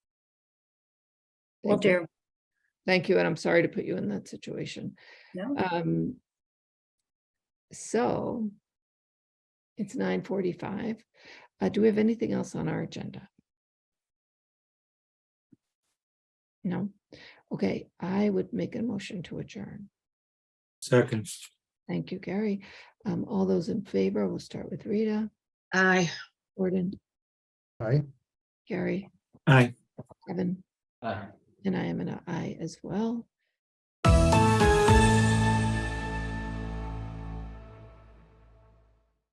Will Thank you. do. Thank you, and I'm sorry to put you in that situation. No. Um. So. It's nine forty-five. Uh, do we have anything else on our agenda? No? Okay, I would make a motion to adjourn. Second, Thank you, Gary. Um, all those in favor, we'll start with Rita, Aye. Gordon, Aye. Gary, aye. Kevin, Aye. and I am an I as well.